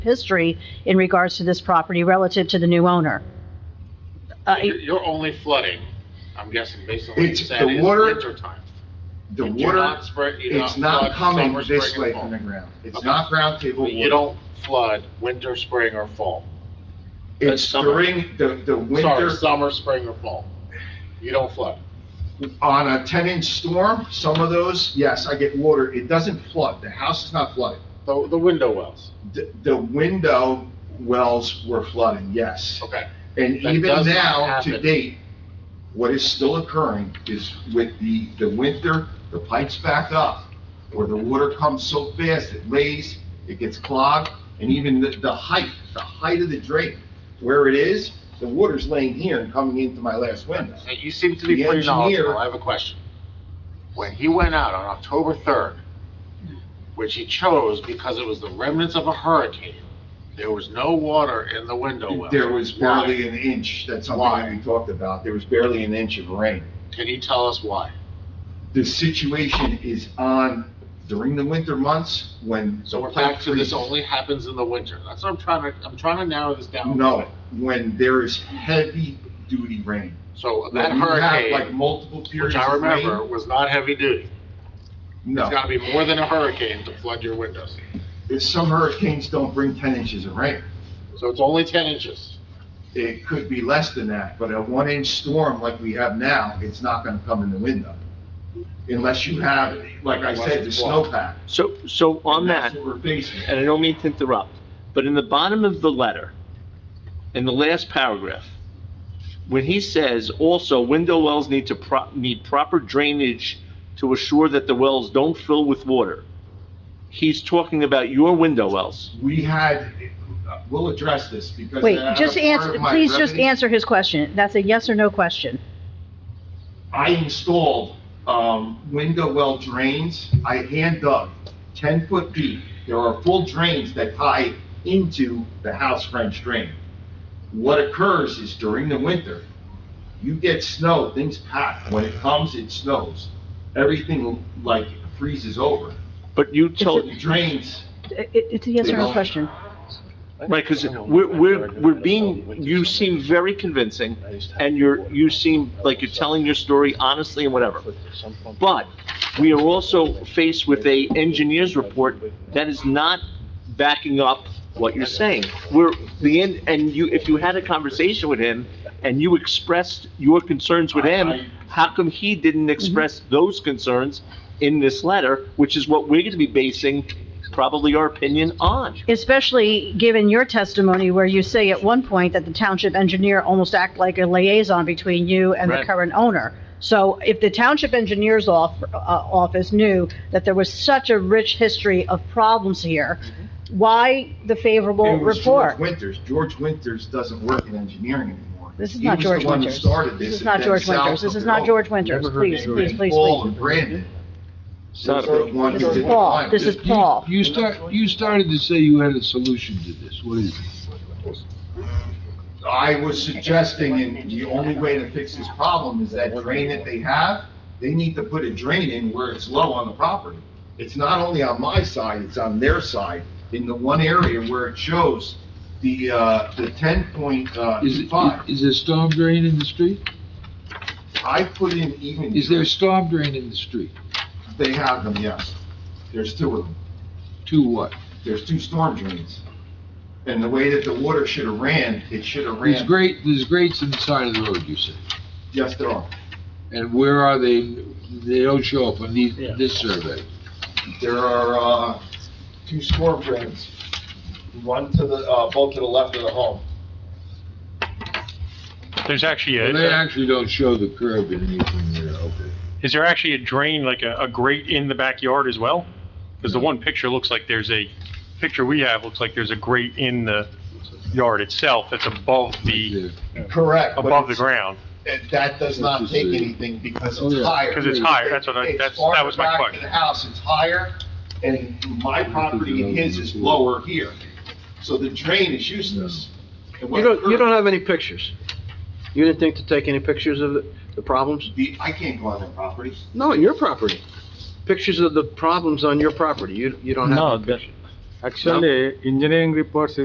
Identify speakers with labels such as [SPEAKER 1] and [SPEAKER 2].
[SPEAKER 1] history in regards to this property relative to the new owner. Uh,
[SPEAKER 2] You're you're only flooding, I'm guessing, based on what you
[SPEAKER 3] It's-
[SPEAKER 2] said,
[SPEAKER 3] the
[SPEAKER 2] is
[SPEAKER 3] water-
[SPEAKER 2] winter time.
[SPEAKER 3] The
[SPEAKER 2] You do
[SPEAKER 3] water,
[SPEAKER 2] not spread- you do
[SPEAKER 3] it's
[SPEAKER 2] flood
[SPEAKER 3] not coming
[SPEAKER 2] summer,
[SPEAKER 3] this
[SPEAKER 2] spring,
[SPEAKER 3] way
[SPEAKER 2] and fall.
[SPEAKER 3] from the ground. It's
[SPEAKER 2] Okay.
[SPEAKER 3] not ground table
[SPEAKER 2] You
[SPEAKER 3] water.
[SPEAKER 2] don't flood winter, spring, or fall.
[SPEAKER 3] It's
[SPEAKER 2] summer.
[SPEAKER 3] during the, the
[SPEAKER 2] Sorry,
[SPEAKER 3] winter,
[SPEAKER 2] summer, spring, or fall. You don't flood.
[SPEAKER 3] on a ten-inch storm, some of those, yes, I get water. It doesn't flood. The house is not flooded.
[SPEAKER 2] The, the window wells,
[SPEAKER 3] The, the window wells were flooding, yes.
[SPEAKER 2] okay.
[SPEAKER 3] And
[SPEAKER 2] That
[SPEAKER 3] even
[SPEAKER 2] does not
[SPEAKER 3] now, to
[SPEAKER 2] happen.
[SPEAKER 3] date, what is still occurring is with the, the winter, the pipes back up, or the water comes so fast, it lays, it gets clogged, and even the, the height, the height of the drain, where it is, the water's laying here and coming into my last window.
[SPEAKER 2] Now, You seem to be
[SPEAKER 3] The
[SPEAKER 2] pretty knowledgeable,
[SPEAKER 3] engineer-
[SPEAKER 2] I have a question. When he went out on October 3rd, which he chose because it was the remnants of a hurricane, there was no water in the window well.
[SPEAKER 3] There was
[SPEAKER 2] Why?
[SPEAKER 3] barely an inch, that's something that we talked about, there was barely an inch of rain.
[SPEAKER 2] Can you tell us why?
[SPEAKER 3] The situation is on during the winter months when.
[SPEAKER 2] So
[SPEAKER 3] the
[SPEAKER 2] we're back
[SPEAKER 3] pipe
[SPEAKER 2] to this
[SPEAKER 3] freezes.
[SPEAKER 2] only happens in the winter. That's what I'm trying to, I'm trying to narrow this down.
[SPEAKER 3] No, when there is heavy-duty rain.
[SPEAKER 2] So
[SPEAKER 3] When
[SPEAKER 2] that
[SPEAKER 3] you have, Like
[SPEAKER 2] hurricane,
[SPEAKER 3] multiple periods
[SPEAKER 2] which I
[SPEAKER 3] of
[SPEAKER 2] remember,
[SPEAKER 3] rain.
[SPEAKER 2] was not heavy duty. It's
[SPEAKER 3] No,
[SPEAKER 2] gotta be more than a hurricane to flood your windows.
[SPEAKER 3] if some hurricanes don't bring 10 inches of rain.
[SPEAKER 2] So it's only ten inches.
[SPEAKER 3] It could be less than that, but a one-inch storm like we have now, it's not gonna come in the window. Unless you have, like I said, the snowpack.
[SPEAKER 4] So, so on
[SPEAKER 3] And
[SPEAKER 4] that,
[SPEAKER 3] That's what we're facing.
[SPEAKER 4] and I don't mean to interrupt, but in the bottom of the letter, in the last paragraph, when he says, also, window wells need to pro, need proper drainage to assure that the wells don't fill with water, he's talking about your window wells.
[SPEAKER 3] We had, we'll address this because.
[SPEAKER 1] Wait,
[SPEAKER 3] that
[SPEAKER 1] just
[SPEAKER 3] was part
[SPEAKER 1] answer,
[SPEAKER 3] of my
[SPEAKER 1] please just
[SPEAKER 3] revenue.
[SPEAKER 1] answer his question. That's a yes or no question.
[SPEAKER 3] I installed, um, window well drains, I hand dug ten foot deep. There are full drains that tie into the house French drain. What occurs is during the winter, you get snow, things pack. When it comes, it snows. Everything like freezes over.
[SPEAKER 4] But you
[SPEAKER 3] So
[SPEAKER 4] told,
[SPEAKER 3] the drains,
[SPEAKER 1] It- it- It's a yes or no question.
[SPEAKER 4] right, because we're, we're, we're being, you seem very convincing, and you're, you seem like you're telling your story honestly and whatever. But we are also faced with a engineer's report that is not backing up what you're saying. We're, the, en- and you, if you had a conversation with him and you expressed your concerns with him, how come he didn't express those concerns in this letter, which is what we're gonna be basing probably our opinion on?
[SPEAKER 1] Especially given your testimony where you say at one point that the township engineer almost act like a liaison between you and the
[SPEAKER 4] Right.
[SPEAKER 1] current owner. So if the township engineer's off, uh, office knew that there was such a rich history of problems here, why the favorable
[SPEAKER 3] it was George
[SPEAKER 1] report?
[SPEAKER 3] Winters. George Winters doesn't work in engineering anymore.
[SPEAKER 1] This is
[SPEAKER 3] He
[SPEAKER 1] not
[SPEAKER 3] was the
[SPEAKER 1] George
[SPEAKER 3] one who
[SPEAKER 1] Winters.
[SPEAKER 3] started
[SPEAKER 1] This is
[SPEAKER 3] and
[SPEAKER 1] not
[SPEAKER 3] then
[SPEAKER 1] George
[SPEAKER 3] Sal
[SPEAKER 1] Winters. This
[SPEAKER 3] took
[SPEAKER 1] is
[SPEAKER 3] it
[SPEAKER 1] not
[SPEAKER 3] over.
[SPEAKER 1] George Winters.
[SPEAKER 5] Never heard
[SPEAKER 1] Please,
[SPEAKER 5] anything.
[SPEAKER 1] please, please,
[SPEAKER 3] Paul
[SPEAKER 1] please.
[SPEAKER 3] and Brandon.
[SPEAKER 4] It's not
[SPEAKER 3] Those are
[SPEAKER 4] a-
[SPEAKER 3] the ones
[SPEAKER 1] This
[SPEAKER 3] who
[SPEAKER 1] is
[SPEAKER 3] did the
[SPEAKER 1] Paul.
[SPEAKER 3] climb.
[SPEAKER 1] This is Paul.
[SPEAKER 5] You start, you started to say you had a solution to this, what is it?
[SPEAKER 3] I was suggesting, and the only way to fix this problem is that drain that they have, they need to put a drain in where it's low on the property. It's not only on my side, it's on their side, in the one area where it shows the, uh, the ten point, uh,
[SPEAKER 5] Is
[SPEAKER 3] five.
[SPEAKER 5] it, is there storm drain in the street?
[SPEAKER 3] I put in even,
[SPEAKER 5] Is there a storm drain in the street?
[SPEAKER 3] they have them, yes. There's two of them.
[SPEAKER 5] To what?
[SPEAKER 3] There's two storm drains. And the way that the water should have ran, it should have
[SPEAKER 5] There's
[SPEAKER 3] ran,
[SPEAKER 5] great, there's grates in the side of the road, you said.
[SPEAKER 3] yes, there are.
[SPEAKER 5] And where are they? They don't show up on these,
[SPEAKER 4] Yeah.
[SPEAKER 5] this survey.
[SPEAKER 3] There are, uh, two storm drains, one to the, uh, both to the left of the home.
[SPEAKER 6] There's actually
[SPEAKER 5] Well, They
[SPEAKER 6] a,
[SPEAKER 5] actually don't show the curb in anything there, okay.
[SPEAKER 6] is there actually a drain, like a, a grate in the backyard as well? Because the one picture looks like there's a, picture we have looks like there's a grate in the yard itself that's above the,
[SPEAKER 5] Right
[SPEAKER 3] Correct. but
[SPEAKER 6] above the
[SPEAKER 3] it's-
[SPEAKER 6] ground,
[SPEAKER 3] it- That does not take anything because
[SPEAKER 5] Oh,
[SPEAKER 3] it's
[SPEAKER 5] yeah.
[SPEAKER 3] higher.
[SPEAKER 6] because it's higher, that's what I,
[SPEAKER 3] It's
[SPEAKER 6] that's, that was my
[SPEAKER 3] farther back to
[SPEAKER 6] question.
[SPEAKER 3] The house, it's higher, and my property and his is lower here. So the drain is useless. And what
[SPEAKER 7] You don't, you
[SPEAKER 3] occurs-
[SPEAKER 7] don't have any pictures? You didn't think to take any pictures of the- the problems?
[SPEAKER 3] The, I can't go on their property.
[SPEAKER 7] No, your property. Pictures of the problems on your property, you, you don't have.
[SPEAKER 4] No,
[SPEAKER 7] any
[SPEAKER 4] that-
[SPEAKER 7] pictures.
[SPEAKER 4] Actually, engineering reports